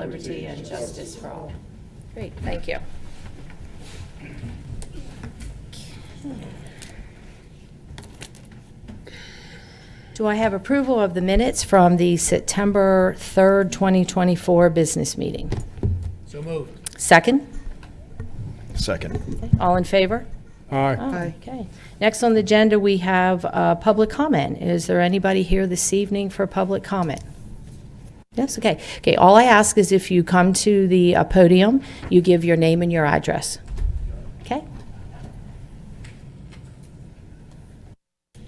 liberty, and justice for all. Great, thank you. Do I have approval of the minutes from the September 3rd, 2024 business meeting? So moved. Second? Second. All in favor? Aye. Aye. Okay. Next on the agenda, we have uh, public comment. Is there anybody here this evening for public comment? Yes, okay. Okay, all I ask is if you come to the uh, podium, you give your name and your address. Okay?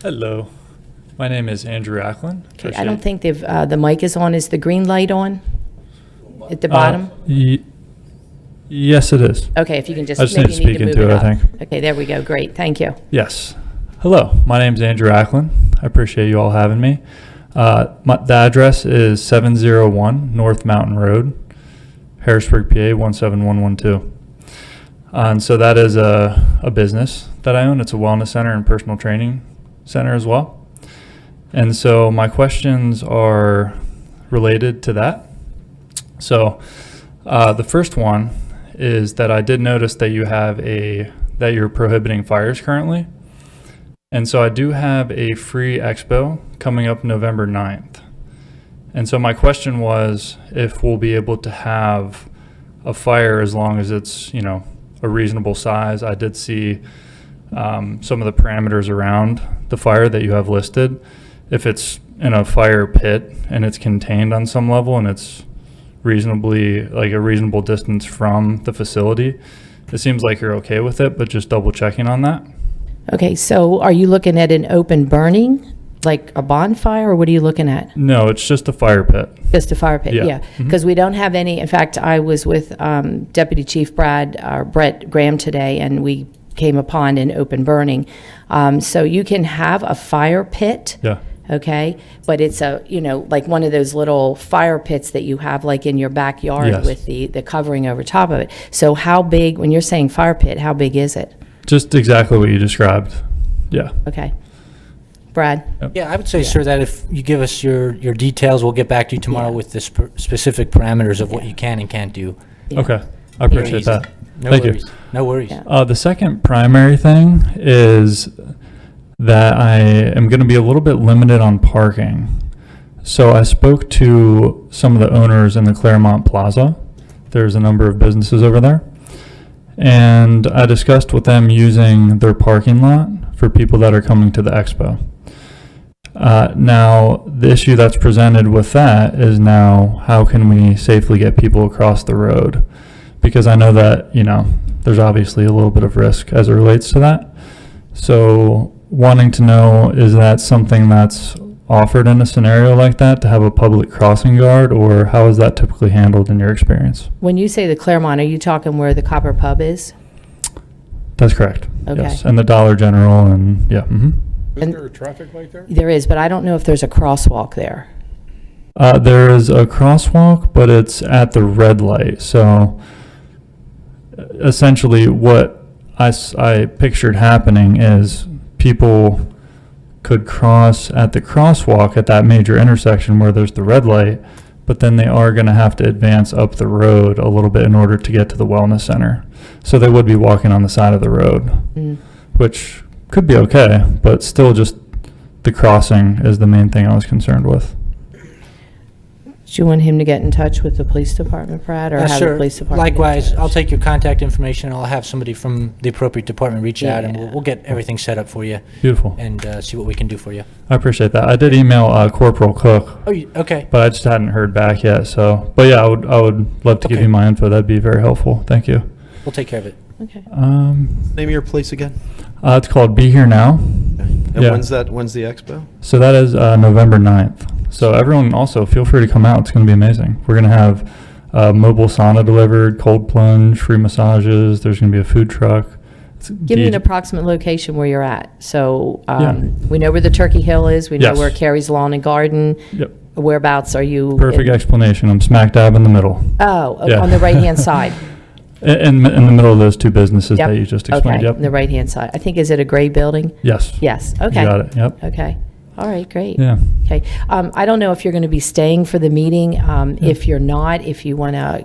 Hello, my name is Andrew Ackland. Okay, I don't think they've, uh, the mic is on. Is the green light on at Uh, the bottom? yes, it is. Okay, if you can just I just maybe need to you need speak to move into it it, I up. think. Okay, there we go. Great, thank you. Yes. Hello, my name is Andrew Ackland. I appreciate you all having me. Uh, my, the address is 701 North Mountain Road, Harrisburg, PA 17112. And so that is a, a business that I own. It's a wellness center and personal training center as well. And so my questions are related to that. So uh, the first one is that I did notice that you have a that you're prohibiting fires currently. And so I do have a free expo coming up November 9th. And so my question was if we'll be able to have a fire as long as it's, you know, a reasonable size. I did see um, some of the parameters around the fire that you have listed. If it's in a fire pit and it's contained on some level and it's reasonably, like a reasonable distance from the facility, it seems like you're okay with it, but just double checking on that. Okay, so are you looking at an open burning, like a bonfire, or what are you looking at? No, it's just a fire pit. Just a fire pit, Yeah. Mm-hmm. yeah. Because we don't have any, in fact, I was with um, Deputy Chief Brad, uh, Brett Graham today, and we came upon an open burning. Um, So you can have a fire pit. Yeah. Okay, but it's a, you know, like one of those little fire pits that you have like in your backyard Yes. with the, the covering over top of it. So how big, when you're saying fire pit, how big is it? Just exactly what you described. Yeah. Okay. Brad? Yeah, I would say, sir, that if you give us your, your details, we'll get back to you tomorrow with the sp- specific parameters of what you can and can't do. Yeah. Okay. I appreciate that. No Thank worries. you. No worries. Yeah. Uh, the second primary thing is that I am going to be a little bit limited on parking. So I spoke to some of the owners in the Claremont Plaza. There's a number of businesses over there. And I discussed with them using their parking lot for people that are coming to the expo. Uh, now, the issue that's presented with that is now how can we safely get people across the road? Because I know that, you know, there's obviously a little bit of risk as it relates to that. So, wanting to know is that something that's offered in a scenario like that to have a public crossing guard, or how is that typically handled in your experience? When you say the Claremont, are you talking where the Copper Pub is? That's correct. Okay. Yes. And the Dollar General, and yeah. hmm And- Isn't there a traffic light there? There is, but I don't know if there's a crosswalk there. Uh, there is a crosswalk, but it's at the red light. So uh, essentially, what I, s- I pictured happening is people could cross at the crosswalk at that major intersection where there's the red light, but then they are going to have to advance up the road a little bit in order to get to the wellness center. So they would be walking on the side of the road, Mm. which could be okay, but still just the crossing is the main thing I was concerned with. Do you want him to get in touch with the police department, Brad, or Uh, have the sir, police department? get in likewise, touch? I'll take your contact information, and I'll have somebody from the appropriate department reach out, and we'll, Yeah. we'll get everything set up for you Beautiful. and uh, see what we can do for you. I appreciate that. I did email uh, Corporal Cook, Oh, you- okay. but I just hadn't heard back yet. So, but yeah, I would I would love to give Okay. you my info. That'd be very helpful. Thank you. We'll take care of it. Okay. Um, Name of your place again? uh, it's called Be Here Now. And Yeah. when's that, when's the expo? So that is uh, November 9th. So everyone also feel free to come out. It's going to be amazing. We're going to have uh, mobile sauna delivered, cold plunge, free massages. There's going to be a food truck. It's Give me an DJ approximate location where you're at. So Yeah. um, we know where the Turkey Hill is, we know Yes. where Carrie's Lawn and Garden. Yep. Whereabouts are you? Perfect in- explanation. I'm smack dab in the middle. Oh, o- Yeah. on the right-hand side. In, in, in the middle of those two businesses Yep. that you just explained. Okay, on the Yep. right-hand side. I think, is it a gray building? Yes. Yes, okay. You got it. Yep. Okay. All right, great. Yeah. Okay. Um, I don't know if you're going to be staying for the meeting. Um, If you're not, if you want to